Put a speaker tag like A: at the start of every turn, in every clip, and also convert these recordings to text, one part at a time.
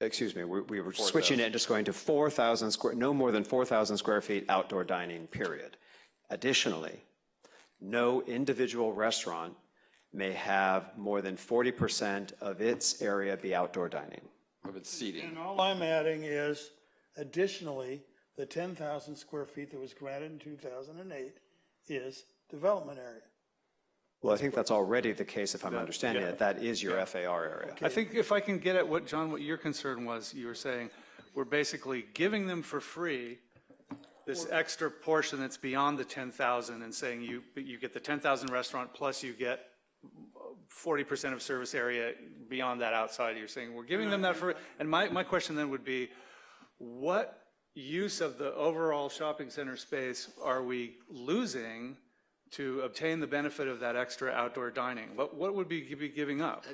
A: Excuse me, we we were
B: 4,000.
A: switching it, just going to 4,000 square, no more than 4,000 square feet outdoor dining, period. Additionally, no individual restaurant may have more than 40% of its area be outdoor dining.
B: of its seating.
C: And all I'm adding is additionally, the ten thousand square feet that was granted in two thousand and eight is development area.
A: Well, I think that's already the case, if I'm understanding it. That is your FAR area.
D: I think if I can get at what, John, what your concern was, you were saying, we're basically giving them for free this extra portion that's beyond the 10,000 and saying you, you get the 10,000 restaurant plus you get 40% of service area beyond that outside. You're saying, we're giving them that for, and my, my question then would be, what use of the overall shopping center space are we losing to obtain the benefit of that extra outdoor dining? What, what would we be giving up?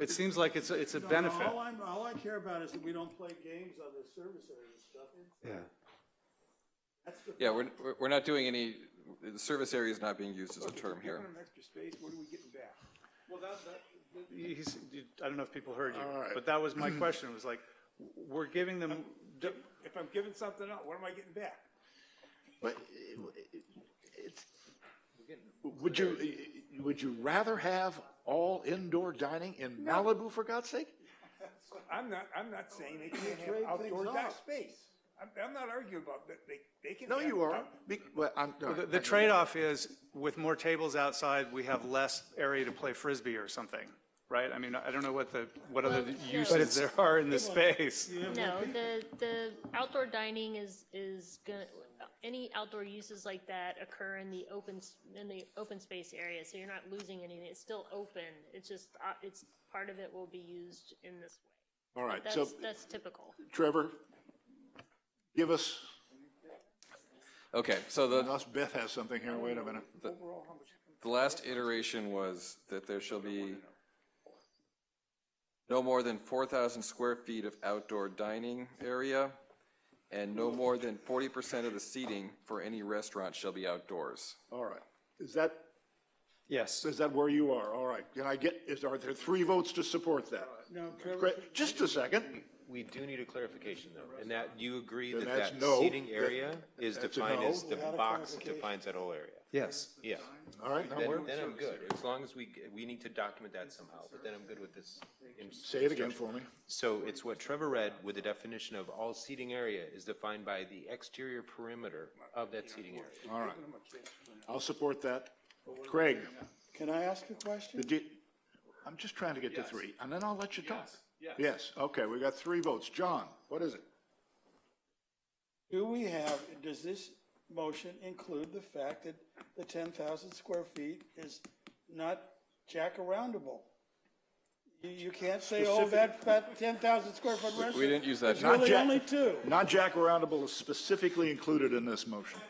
D: It seems like it's, a- it's a benefit.
C: All I'm, all I care about is that we don't play games on this service area stuff.
A: Yeah.
C: That's the.
B: Yeah, we're, we're- we're not doing any, the service area is not being used as a term here.
E: extra space, what are we getting back?
D: He's, I don't know if people heard you,
E: All right.
D: but that was my question, was like, we're giving them,
E: If I'm giving something up, what am I getting back?
F: But it- it's- Would you, would you rather have all indoor dining in Malibu, for God's sake?
E: I'm not, I'm not saying they can't have outdoor dining space. I'm, I'm not arguing about that, they, they can.
F: No,
E: have-
F: you are. Be- Well, I'm.
D: the- the trade-off is, with more tables outside, we have less area to play frisbee or something, right? I mean, I don't know what the, what other uses there are in this space.
G: No, the, the outdoor dining is, is gonna, any outdoor uses like that occur in the open, s- in the open space area, so you're not losing anything, it's still open, it's just, uh, it's, part of it will be used in this way.
F: All right, so
G: That's, that's typical.
F: Trevor, give us,
B: Okay, so the,
F: unless Beth has something here, wait a minute.
B: The last iteration was that there shall be no more than four thousand square feet of outdoor dining area, and no more than forty percent of the seating for any restaurant shall be outdoors.
F: All right. Is that,
A: Yes.
F: is that where you are? All right. Can I get, is, are there three votes to support that?
C: No, Trevor,
F: Great. Just a second.
H: We do need a clarification, though, and that, you agree that
F: that's
H: that
F: no.
H: seating
F: That-
H: area is
F: that's a
H: defined
F: no.
H: as, the box defines that whole area?
A: Yes.
H: Yeah.
F: All right, now
H: Then,
F: we're,
H: then I'm good, as long as we, g- we need to document that somehow, but then I'm good with this. in-
F: say it again for me.
H: So it's what Trevor read with the definition of all seating area is defined by the exterior perimeter of that seating area.
F: All right. I'll support that. Craig,
C: can I ask a question?
F: did you, I'm just trying to get to three, and then I'll let you talk. Yes. okay, we got three votes. John, what is it?
C: Do we have, does this motion include the fact that the ten thousand square feet is not jack-aroundable? You, you can't say, oh, that, that ten thousand square foot restaurant.
B: We didn't use that.
F: Not
C: Really,
F: Jack-
C: only two.
F: Not Jack Roundable is specifically included in this motion.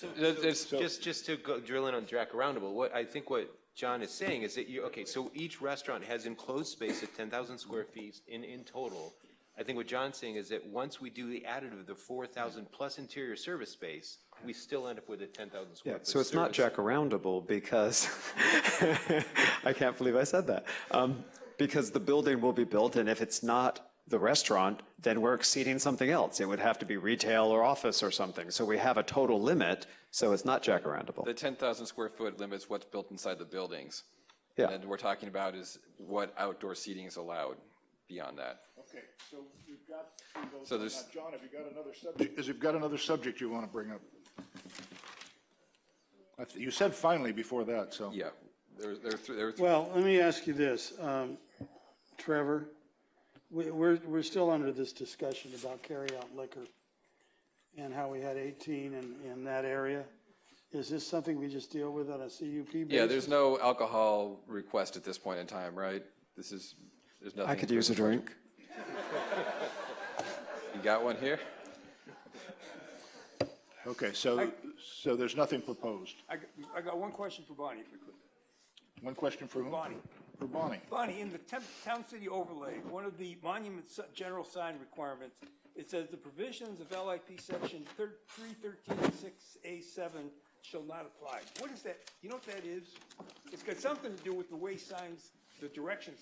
B: That- that's-
H: Just, just to go drill in on Jack Roundable, what, I think what John is saying is that you, okay, so each restaurant has enclosed space of ten thousand square feet in, in total. I think what John's saying is that once we do the additive of the four thousand plus interior service space, we still end up with a ten thousand square.
A: Yeah,
H: foot
A: so it's not
H: service.
A: jackaroundable because, I can't believe I said that. Um, Because the building will be built, and if it's not the restaurant, then we're exceeding something else. It would have to be retail or office or something. So we have a total limit, so it's not jackaroundable.
B: The ten thousand square foot limits what's built inside the buildings.
A: Yeah.
B: And we're talking about is what outdoor seating is allowed beyond that.
F: Okay, so we've got three votes.
B: So on there's- that.
F: John, have you got another subject? Is you've got another subject you want to bring up? I th- You said finally before that, so.
B: Yeah, there, there, are th- there, are th-
C: Well, let me ask you this, um, Trevor, we, we're, we're still under this discussion about carryout liquor and how we had eighteen in, in that area. Is this something we just deal with on a CUP basis?
B: yeah, there's no alcohol request at this point in time, right? This is, there's nothing.
A: I could use a drink.
B: You got one here?
F: Okay, so, so there's nothing proposed.
E: I, got- I got one question for Bonnie, if we could.
F: One question for whom?
E: Bonnie.
F: For Bonnie.
E: Bonnie, in the temp- town city overlay, one of the monument s- general sign requirements, it says the provisions of LIP section three thirteen six A seven shall not apply. What is that? You know what that is? It's got something to do with the way signs, the direction